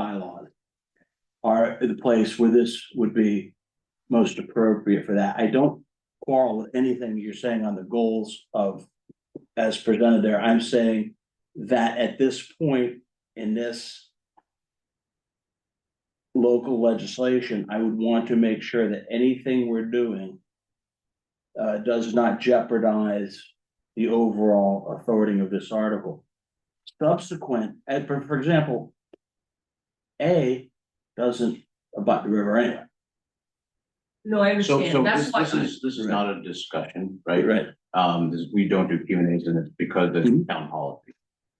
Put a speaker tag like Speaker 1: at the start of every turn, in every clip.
Speaker 1: bylaws are the place where this would be most appropriate for that. I don't quarrel with anything you're saying on the goals of as presented there. I'm saying that at this point in this local legislation, I would want to make sure that anything we're doing uh, does not jeopardize the overall authority of this article. Subsequent, and for, for example, A doesn't abut the river anyway.
Speaker 2: No, I
Speaker 3: So, so
Speaker 2: understand,
Speaker 3: this,
Speaker 2: that's
Speaker 3: this
Speaker 2: why,
Speaker 3: is, this is not a discussion, right?
Speaker 1: Right.
Speaker 3: Um, this, we don't do Q and As and it's because it's
Speaker 1: Mhm.
Speaker 3: town hall.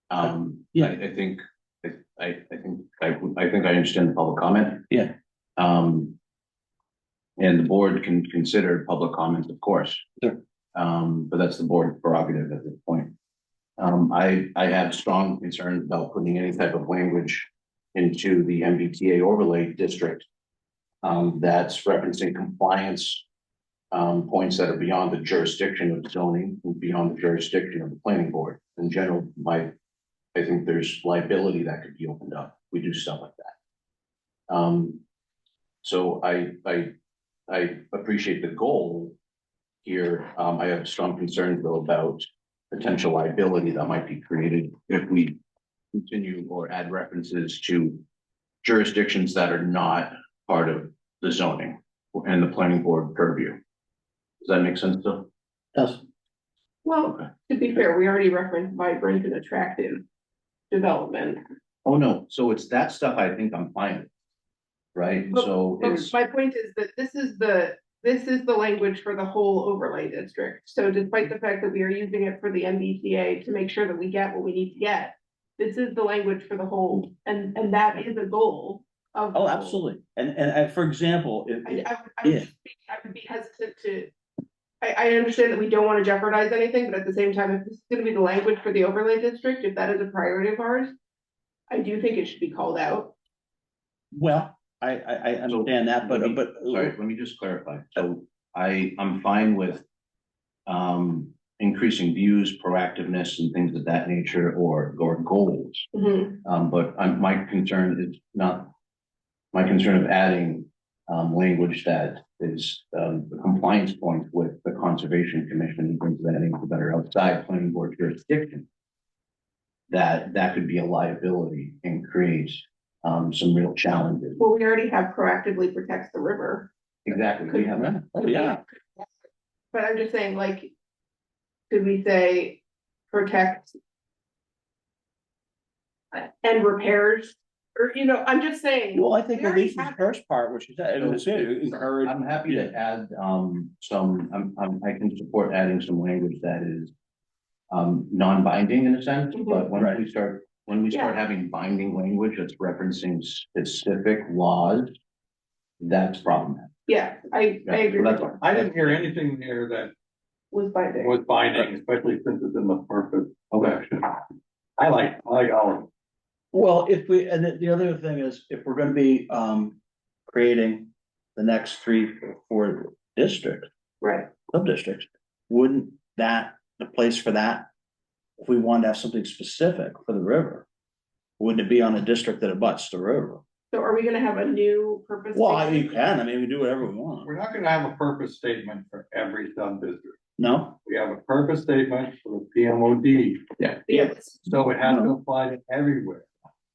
Speaker 3: Um,
Speaker 1: Yeah.
Speaker 3: I, I think, I, I, I think, I, I think I understand the public comment.
Speaker 1: Yeah.
Speaker 3: Um. And the board can consider public comments, of course.
Speaker 1: Sure.
Speaker 3: Um, but that's the board prerogative at this point. Um, I, I have strong concerns about putting any type of language into the MBTA overlay district. Um, that's referencing compliance. Um, points that are beyond the jurisdiction of zoning, and beyond the jurisdiction of the planning board. In general, my. I think there's liability that could be opened up. We do stuff like that. Um. So I, I, I appreciate the goal. Here, um, I have strong concerns though about potential liability that might be created if we continue or add references to jurisdictions that are not part of the zoning and the planning board purview. Does that make sense though?
Speaker 1: Does,
Speaker 4: Well,
Speaker 3: Okay.
Speaker 4: to be fair, we already referenced vibrant and attractive development.
Speaker 3: Oh, no. So it's that stuff I think I'm fine with. Right?
Speaker 4: But-
Speaker 3: So
Speaker 4: But
Speaker 3: it's,
Speaker 4: my point is that this is the, this is the language for the whole overlay district. So despite the fact that we are using it for the MBTA to make sure that we get what we need to get, this is the language for the whole, and, and that is a goal of. the
Speaker 1: oh,
Speaker 4: whole.
Speaker 1: absolutely. And, and I, for example, if.
Speaker 4: I, I, would- I would
Speaker 1: Yeah.
Speaker 4: just be, I would be hesitant to. I, I understand that we don't wanna jeopardize anything, but at the same time, if this is gonna be the language for the overlay district, if that is a priority of ours. I do think it should be called out.
Speaker 1: Well, I, I, I understand that, but, but.
Speaker 3: sorry, let me just clarify. So I, I'm fine with um, increasing views, proactiveness and things of that nature or, or goals. Um, but I'm, my concern is not, my concern of adding, um, language that is, um, the compliance point with the conservation commission and brings that in that are outside planning board jurisdiction. That, that could be a liability and create, um, some real challenges.
Speaker 4: Well, we already have proactively protects the river,
Speaker 3: Exactly, we have,
Speaker 1: Yeah, Oh, yeah.
Speaker 4: but I'm just saying like. Could we say protect? And repairs, or, you know, I'm just saying,
Speaker 1: Well, I think
Speaker 4: We
Speaker 1: at
Speaker 4: already
Speaker 1: least the
Speaker 4: have-
Speaker 1: first part, which is, it was it, encourage.
Speaker 3: I'm happy to add, um, some, I'm, I'm, I can support adding some language that is. Um, non-binding in a sense,
Speaker 4: Mm-hmm.
Speaker 3: but when
Speaker 1: Right.
Speaker 3: we start, when we start having binding language that's referencing specific laws. That's problematic.
Speaker 4: yeah, I, I
Speaker 3: Yeah,
Speaker 4: agree
Speaker 3: well,
Speaker 4: with
Speaker 3: that's-
Speaker 4: you,
Speaker 5: I didn't hear anything there that
Speaker 4: was binding.
Speaker 5: was binding, especially since it's in the purpose of
Speaker 3: Okay,
Speaker 5: action. I like, I like all of it.
Speaker 1: Well, if we, and the, the other thing is, if we're gonna be, um, creating the next three or four districts,
Speaker 4: right,
Speaker 1: sub-districts, wouldn't that, the place for that? If we wanted to have something specific for the river, wouldn't it be on a district that abuts the river?
Speaker 4: so are we gonna have a new purpose?
Speaker 1: Well, I mean,
Speaker 4: statement?
Speaker 1: you can, I mean, we do whatever we want,
Speaker 5: We're not gonna have a purpose statement for every sub-district.
Speaker 1: no?
Speaker 5: We have a purpose statement for the PMOD,
Speaker 4: Yes,
Speaker 5: so it has to apply to everywhere.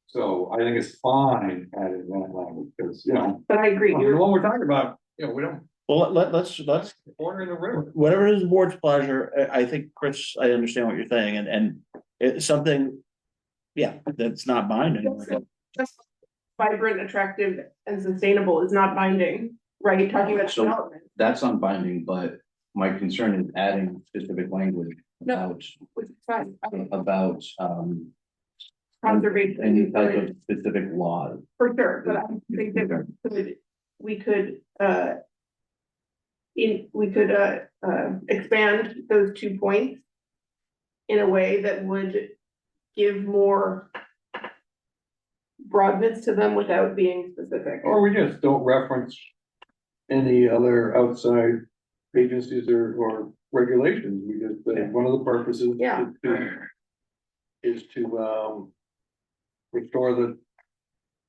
Speaker 5: So I think it's fine adding that language, because, you know,
Speaker 4: but I agree,
Speaker 5: I mean,
Speaker 3: Oh,
Speaker 4: you're,
Speaker 5: what we're talking about, you know, we don't,
Speaker 1: Well, let, let's, let's,
Speaker 5: order in the river.
Speaker 1: whatever is the board's pleasure, I, I think, Chris, I understand what you're saying, and, and it's something. Yeah, that's not binding,
Speaker 4: just vibrant, attractive and sustainable is not binding, right, talking about
Speaker 3: So-
Speaker 4: development,
Speaker 3: that's non-binding, but my concern is adding specific language about,
Speaker 4: which is fine, um,
Speaker 3: about, um.
Speaker 4: Conservation.
Speaker 3: Any type of specific laws.
Speaker 4: for sure, but I think that we could, we could, uh. In, we could, uh, uh, expand those two points. In a way that would give more. Broadness to them without being specific.
Speaker 5: Or Oh, we just don't reference any other outside agencies or, or regulations, we just, say one of the purposes. is
Speaker 4: Yeah.
Speaker 5: to- Is to, um, restore the